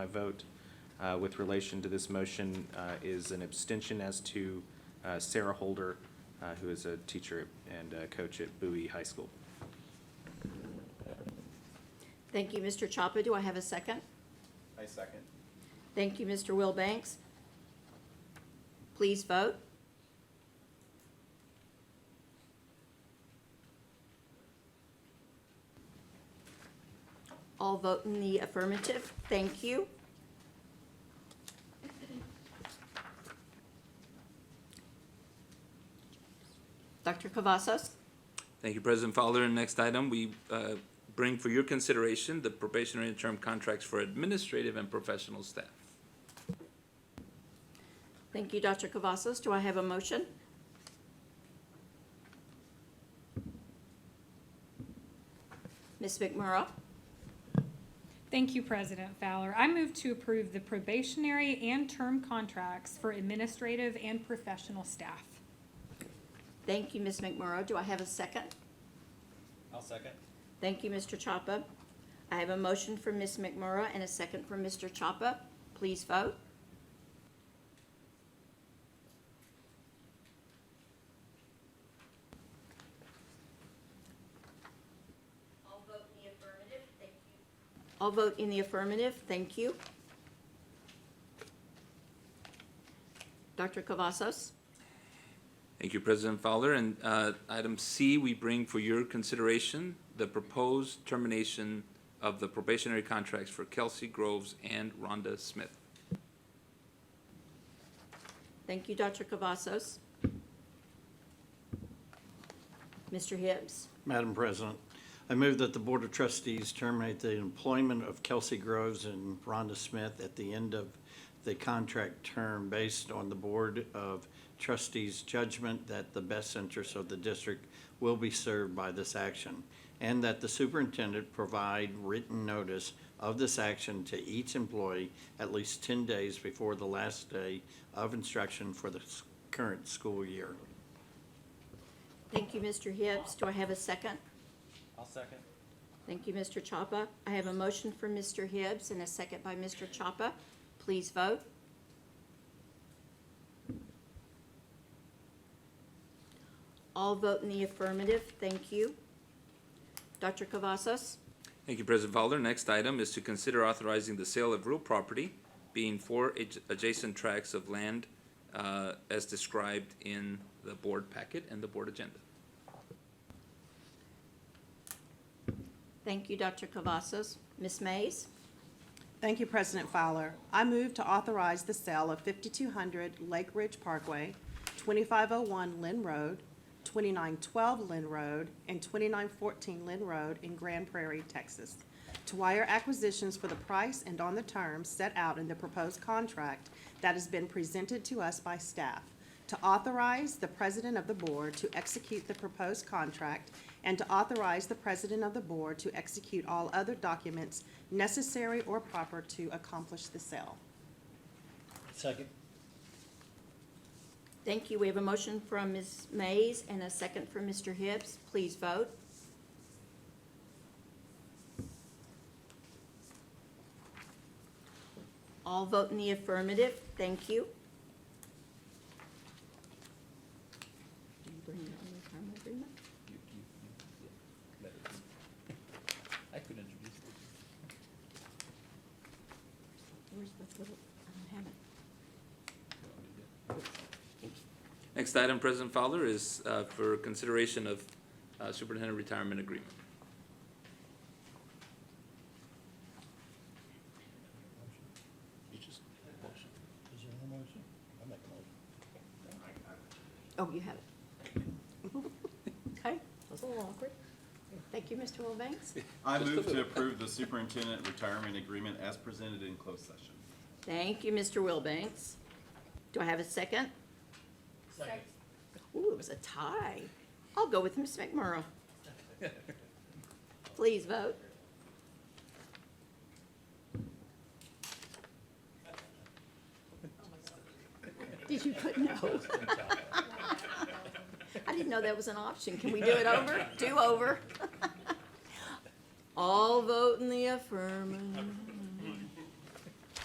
My vote uh, with relation to this motion uh, is an abstention as to uh, Sarah Holder, uh, who is a teacher and uh, coach at Bowie High School. Thank you, Mr. Chapa. Do I have a second? I second. Thank you, Mr. Wilbanks. Please vote. All vote in the affirmative. Thank you. Dr. Cavazos? Thank you, President Fowler. Next item, we uh, bring for your consideration the probationary and term contracts for administrative and professional staff. Thank you, Dr. Cavazos. Do I have a motion? Ms. McMorrow, Thank you, President Fowler. I move to approve the probationary and term contracts for administrative and professional staff. thank you, Ms. McMorrow. Do I have a second? I'll second. Thank you, Mr. Chapa. I have a motion from Ms. McMorrow and a second from Mr. Chapa. Please vote. All vote in the affirmative, thank you. All vote in the affirmative, thank you. Dr. Cavazos? Thank you, President Fowler. And uh, item C, we bring for your consideration the proposed termination of the probationary contracts for Kelsey Groves and Rhonda Smith. Thank you, Dr. Cavazos. Mr. Hibbs? Madam President, I move that the Board of Trustees terminate the employment of Kelsey Groves and Rhonda Smith at the end of the contract term based on the Board of Trustees' judgment that the best interests of the district will be served by this action, and that the superintendent provide written notice of this action to each employee at least 10 days before the last day of instruction for the s- current school year. Thank you, Mr. Hibbs. Do I have a second? I'll second. Thank you, Mr. Chapa. I have a motion for Mr. Hibbs and a second by Mr. Chapa. Please vote. All vote in the affirmative. Thank you. Dr. Cavazos? Thank you, President Fowler. Next item is to consider authorizing the sale of real property, being four adj- adjacent tracts of land uh, as described in the board packet and the board agenda. Thank you, Dr. Cavazos. Ms. Mays? Thank you, President Fowler. I move to authorize the sale of 5200 Lake Ridge Parkway, 2501 Lynn Road, 2912 Lynn Road, and 2914 Lynn Road in Grand Prairie, Texas, to Wire Acquisitions for the price and on the terms set out in the proposed contract that has been presented to us by staff, to authorize the President of the Board to execute the proposed contract and to authorize the President of the Board to execute all other documents necessary or proper to accomplish the sale. Second. Thank you. We have a motion from Ms. Mays and a second from Mr. Hibbs. Please vote. All vote in the affirmative. Thank you. Do you bring that on the retirement agreement? I could introduce it. Where's the little, I don't have it. Next item, President Fowler, is uh, for consideration of uh, superintendent retirement agreement. Is there a motion? I make a motion. Oh, you have it. Okay, that was a little awkward. Thank you, Mr. Wilbanks. I Just a move to little. approve the superintendent retirement agreement as presented in closed session. Thank you, Mr. Wilbanks. Do I have a second? Second. Ooh, it was a tie. I'll go with Ms. McMorro. Please vote. Did you put no? I didn't know that was an option. Can we do it over? Do over? All vote in the affirmative.